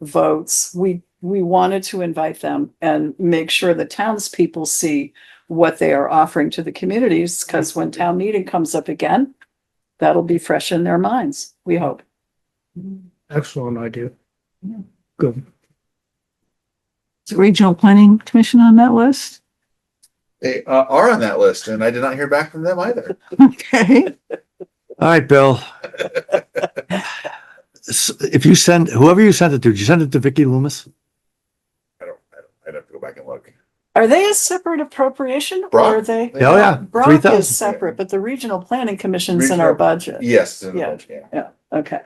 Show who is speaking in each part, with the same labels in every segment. Speaker 1: votes, we, we wanted to invite them and make sure the townspeople see what they are offering to the communities, because when town meeting comes up again, that'll be fresh in their minds, we hope.
Speaker 2: Excellent idea.
Speaker 1: Yeah.
Speaker 2: Good.
Speaker 1: Is Regional Planning Commission on that list?
Speaker 3: They uh, are on that list and I did not hear back from them either.
Speaker 1: Okay.
Speaker 4: All right, Bill. S- If you send, whoever you sent it to, did you send it to Vicky Loomis?
Speaker 3: I don't, I don't, I'd have to go back and look.
Speaker 1: Are they a separate appropriation or
Speaker 3: Brock.
Speaker 1: are they?
Speaker 3: They
Speaker 4: Oh,
Speaker 3: are.
Speaker 4: yeah. Three
Speaker 1: Brock is
Speaker 4: thousand.
Speaker 1: separate, but the Regional Planning Commission's in our
Speaker 3: Regional-
Speaker 1: budget.
Speaker 3: Yes. in the
Speaker 1: Yeah.
Speaker 3: budget, yeah.
Speaker 1: Okay,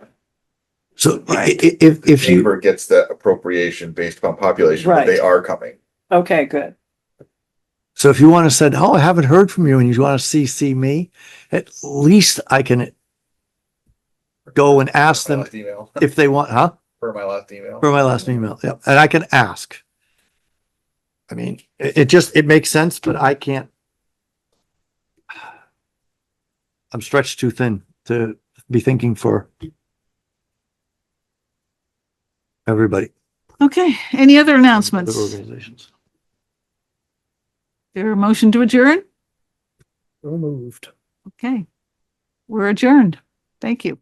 Speaker 4: So i- i- if, if you,
Speaker 3: Chamber gets the appropriation based upon population, but they
Speaker 1: Right.
Speaker 3: are coming.
Speaker 1: okay, good.
Speaker 4: so if you want to send, oh, I haven't heard from you and you want to CC me, at least I can go and ask
Speaker 3: My
Speaker 4: them
Speaker 3: last Email,
Speaker 4: if they want, huh?
Speaker 3: for my last email.
Speaker 4: For my last email, yeah, and I can ask. I mean, it, it just, it makes sense, but I can't. I'm stretched too thin to be thinking for everybody.
Speaker 5: Okay, any other announcements?
Speaker 4: Other Organizations.
Speaker 5: There a motion to adjourn?
Speaker 2: Removed.
Speaker 5: Okay. We're adjourned. Thank you.